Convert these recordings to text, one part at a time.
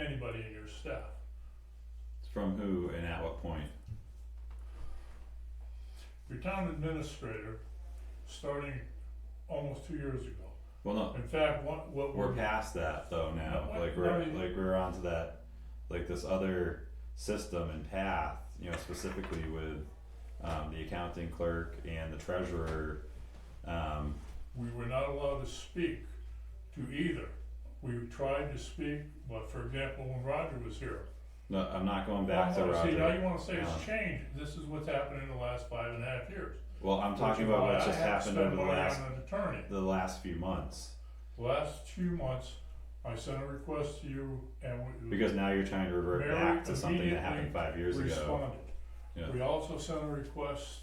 anybody in your staff. From who and at what point? Your town administrator, starting almost two years ago. Well, no, In fact, what, what we're we're, past that though now, Mm-hmm. What- like we're, I mean- like we're onto that, like this other system and path, you know, specifically with um the accounting clerk and the treasurer, um, we were not allowed to speak to either. We tried to speak, but for example, when Roger was here. no, I'm not going back to I wanna Roger. See, Oh, now you wanna say Um, it's changed, this is what's happened in the last five and a half years. Well, I'm talking Which is about why what's I just had to happened spend over the money on last, an Attorney. the last few months, Last two months, I sent a request to you and we. because now you're trying to revert Mary back to something that happened immediately five years ago. responded. Yeah. We also sent a request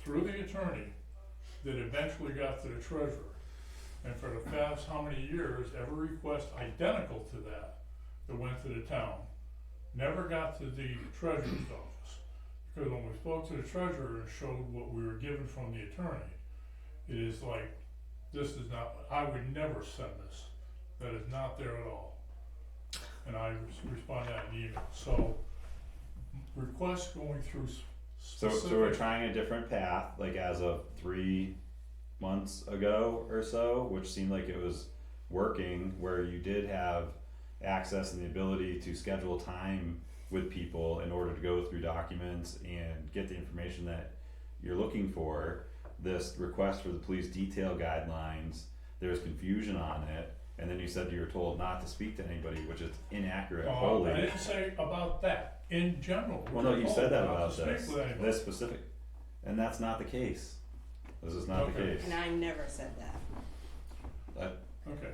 through the attorney that eventually got to the treasurer. And for the past how many years, every request identical to that that went to the town never got to the treasurer's office. Because when we spoke to the treasurer and showed what we were given from the attorney, it is like, this is not, I would never send this. That is not there at all. And I res- respond to that in email. So requests going through s- So, specific. so we're trying a different path, like as of three months ago or so, which seemed like it was working, where you did have access and the ability to schedule time with people in order to go through documents and get the information that you're looking for. This request for the police detail guidelines, there was confusion on it, and then you said you were told not to speak to anybody, which is inaccurate Uh, wholly. I didn't say about that, in general. Well, no, you said that about Not to this, speak with anybody. this specific, and that's not the case. This is not the Okay. case. And I never said that. Okay,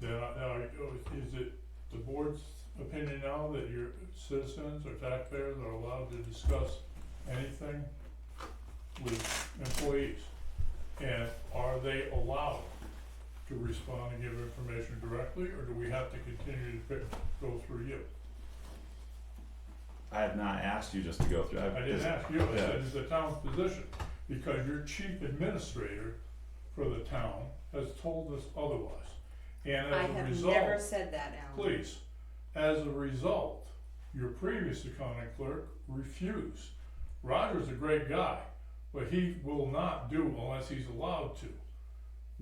then, I- now, I- is it the board's opinion now that your citizens or taxpayers are allowed to discuss anything with employees? And are they allowed to respond and give information directly, or do we have to continue to pick, go through you? I have not asked you just to go through, I've, I didn't just- ask you, I yeah. said, is the town's position, because your chief administrator for the town has told us otherwise. And I as a have result. never said that, Alan. Please, as a result, your previous accounting clerk refused. Roger's a great guy, but he will not do unless he's allowed to.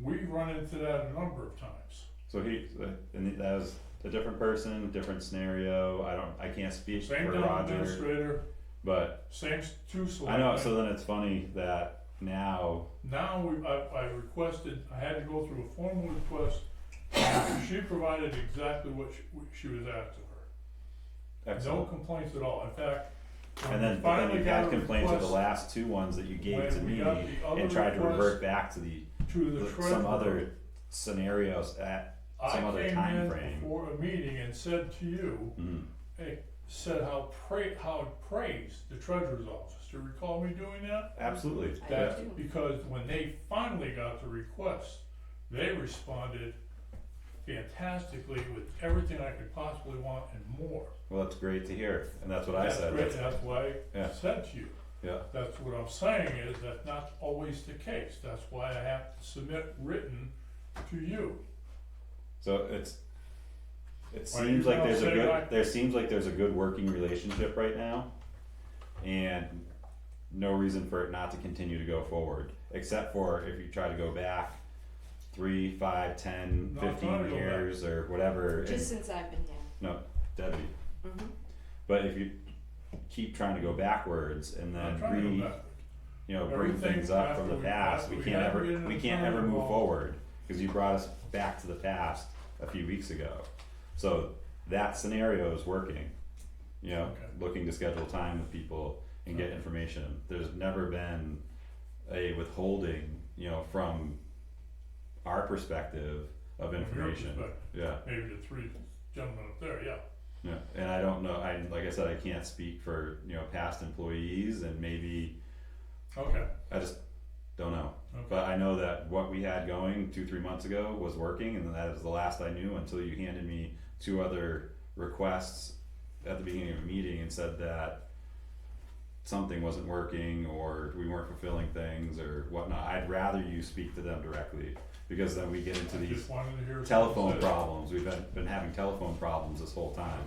We've run into that a number of times. so he, and that was a different person, different scenario, I don't, I can't speak for Same town Roger, administrator, but same s- two I know, selectmen. so then it's funny that now, Now, we, I, I requested, I had to go through a formal request. She provided exactly what she, what she was asked of her. No excellent, complaints at all. In fact, when and we then, but then finally you got had a complaints of the request last two ones that you gave when to we me, got the other and tried to request revert back to the, To the the- treasurer. some other scenarios at, some other time I came frame. in for a meeting and said to you, mm, eh, said how pra- how it praised the treasurer's office, do you recall me doing that? absolutely, I yeah. That's do. because when they finally got the request, they responded fantastically with everything I could possibly want and more. Well, that's great to hear, and that's what I That's said. great, That's- That's why I Yeah. said to you. yeah, That's what I'm saying is that's not always the case, that's why I have to submit written to you. so it's it Why seems you like there's a don't say good that? there seems like there's a good working relationship right now, and no reason for it not to continue to go forward, except for if you try to go back three, five, ten, No, I'm trying to fifteen go back. years or whatever. and- Just since I've been here. no, Debbie. Mhm. But if you keep trying to go backwards and I'm then trying to re go back. you know, bring Everything things up from after the we- past, after we we can't have to ever, get an we can't ever attorney move involved. forward, cause you brought us back to the past a few weeks ago. So that scenario is working, you know, Okay. looking to schedule time with people and get Okay. information, there's never been a withholding, you know, from our perspective of your information, perspective. yeah. maybe the three gentlemen up there, yeah. Yeah, and I don't know, I, like I said, I can't speak for, you know, past employees and maybe, Okay, I just don't know. okay. But I know that what we had going two, three months ago was working, and that is the last I knew until you handed me two other requests at the beginning of a meeting and said that something wasn't working or we weren't fulfilling things or whatnot. I'd rather you speak to them directly because then we get into I these Just wanted to hear. telephone someone say it. problems. We've been, been having telephone problems this whole time.